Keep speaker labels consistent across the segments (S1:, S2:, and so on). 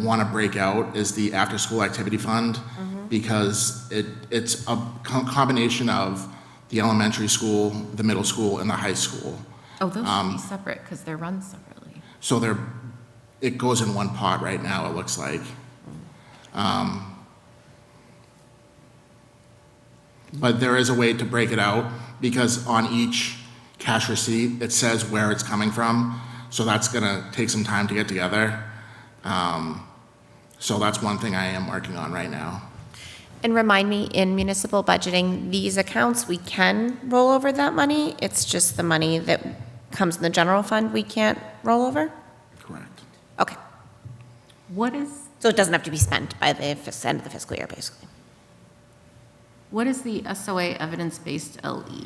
S1: want to break out is the after-school activity fund because it, it's a co- combination of the elementary school, the middle school, and the high school.
S2: Oh, those should
S1: Um,
S2: be separate because they're run separately.
S1: So they're, it goes in one pot right now, it looks like. Um, But there is a way to break it out, because on each cash receipt, it says where it's coming from, so that's gonna take some time to get together. Um, So that's one thing I am working on right now.
S3: And remind me, in municipal budgeting, these accounts, we can roll over that money? It's just the money that comes in the general fund we can't roll over?
S1: Correct.
S3: Okay.
S2: What is,
S3: So it doesn't have to be spent by the fis- end of the fiscal year, basically.
S2: what is the SOA evidence-based E? LE?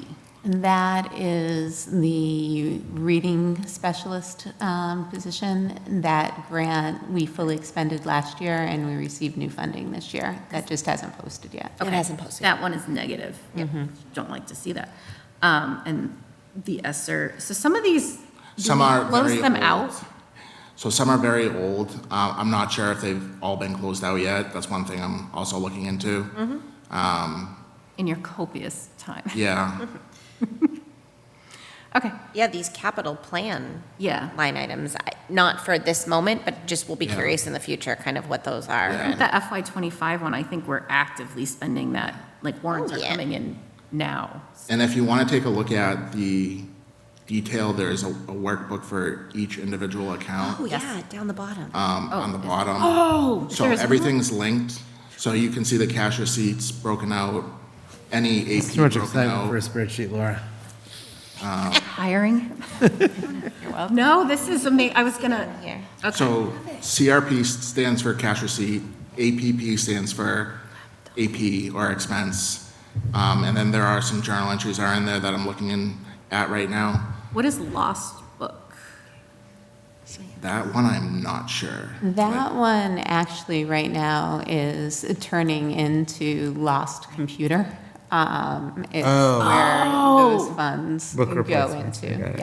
S4: That is the reading specialist um, position. That grant, we fully expended last year, and we received new funding this year. That just hasn't posted yet.
S3: It hasn't posted. Mm-hmm.
S2: That one is negative. Don't like to see that. Um, And the ESER, so some of these, do
S1: Some
S2: we
S1: are
S2: close
S1: very
S2: them
S1: old.
S2: out?
S1: So some are very old. Uh, I'm not sure if they've all been closed out yet. That's one thing I'm also looking into.
S2: In your copious time.
S1: Yeah,
S2: Okay,
S3: Yeah, these capital plan
S2: yeah.
S3: line items, I- not for this moment, but just we'll be
S1: Yeah.
S3: curious in the future, kind of what those are.
S1: Yeah.
S2: With The FY twenty-five one, I think we're actively spending that, like warrants
S3: Oh,
S2: are
S3: yeah.
S2: coming in now.
S1: And if you want to take a look at the detail, there's a a workbook for each individual account
S3: Oh, yeah, down the bottom.
S1: um, on the bottom.
S2: Oh,
S1: So
S2: there's-
S1: everything's linked, so you can see the cash receipts broken out, any AP
S5: Too much
S1: broken
S5: excitement for a
S1: out.
S5: spreadsheet, Laura.
S2: Hiring? No, this is amazing. I was gonna,
S3: Here.
S1: So CRP stands for cash receipt, APP stands for AP or expense. Um, And then there are some journal entries are in there that I'm looking in at right now.
S2: what is lost book?
S1: That one, I'm not sure.
S4: That one actually right now is turning into lost computer. Um, It's where those funds
S5: Oh. Book
S4: go
S5: replacements,
S4: into.
S5: I got it.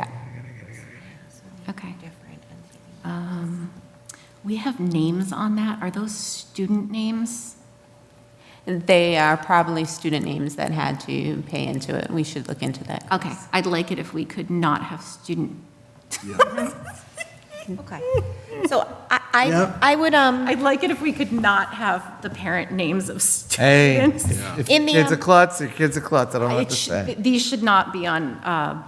S4: Yeah.
S2: Okay. Um, We have names on that. Are those student names?
S4: They are probably student names that had to pay into it. We should look into that.
S2: Okay, I'd like it if we could not have student,
S3: Okay. So I, I,
S5: Yep.
S3: I would, um,
S2: I'd like it if we could not have the parent names of
S5: Hey,
S2: students.
S5: if
S3: In the,
S5: kids a
S3: um,
S5: klutz, your kid's a klutz, I don't know what
S2: It
S5: to
S2: sh-
S5: say.
S2: th- These should not be on uh,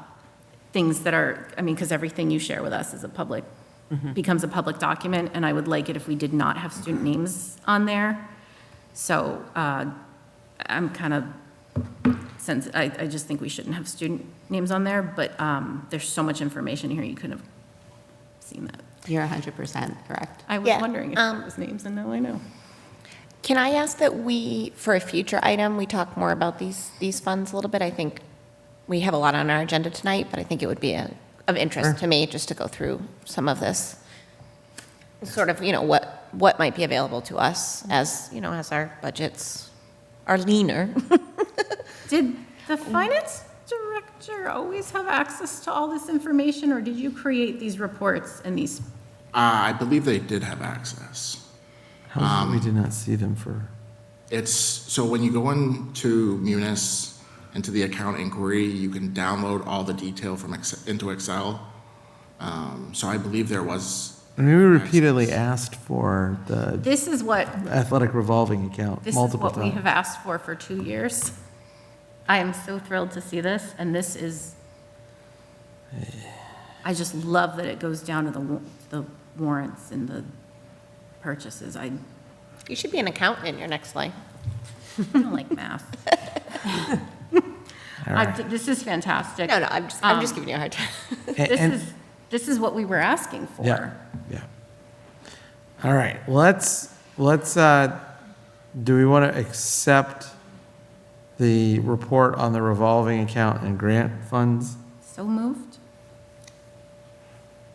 S2: things that are, I mean, because everything you share with us is a public,
S5: Mm-hmm.
S2: becomes a public document, and I would like it if we did not have student names on there. So uh, I'm kind of, since, I, I just think we shouldn't have student names on there, but um, there's so much information here, you couldn't have seen that.
S4: You're 100% correct.
S2: I was
S3: Yeah,
S2: wondering if
S3: um,
S2: it was names, and now I know.
S3: Can I ask that we, for a future item, we talk more about these, these funds a little bit? I think we have a lot on our agenda tonight, but I think it would be a- of interest to me just to go through some of this. Sort of, you know, what, what might be available to us as, you know, as our budgets are leaner.
S2: Did
S5: Oh.
S2: the finance director always have access to all this information, or did you create these reports and these?
S1: Uh, I believe they did have access.
S5: How is it we did not see them for,
S1: It's, so when you go into Munis, into the account inquiry, you can download all the detail from, Ex- into Excel. Um, So I believe there was,
S5: I mean, we repeatedly asked for the
S2: This is what,
S5: athletic revolving account
S2: this is
S5: multiple
S2: what we
S5: times.
S2: have asked for for two years. I am so thrilled to see this, and this is, I just love that it goes down to the, wa- the warrants and the purchases. I
S3: You should be an accountant in your next life.
S2: don't like math. I- This is fantastic.
S3: No, no, I'm just, I'm just
S2: Um,
S3: giving you a hard time.
S2: This is, this is what we were asking for.
S5: Yeah, yeah. All right, let's, let's, uh, do we want to accept the report on the revolving account and grant funds?
S2: So moved.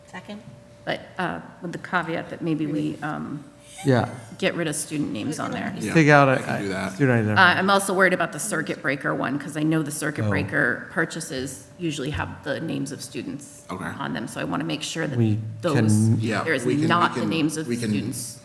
S3: Second?
S2: But uh, with the caveat that maybe we um,
S5: Yeah,
S2: get rid of student names on there.
S1: Yeah,
S5: take out
S1: I can do
S5: a
S1: that.
S5: student
S2: Uh,
S5: identifier.
S2: I'm also worried about the circuit breaker one, because I know the
S1: Oh.
S2: circuit breaker purchases usually have the names of students
S1: Okay.
S2: on them, so I want to make sure that
S5: We
S2: those,
S5: can-
S1: Yeah,
S2: there is
S1: we can- we
S2: not the
S1: can-
S2: names of
S1: we can-
S2: students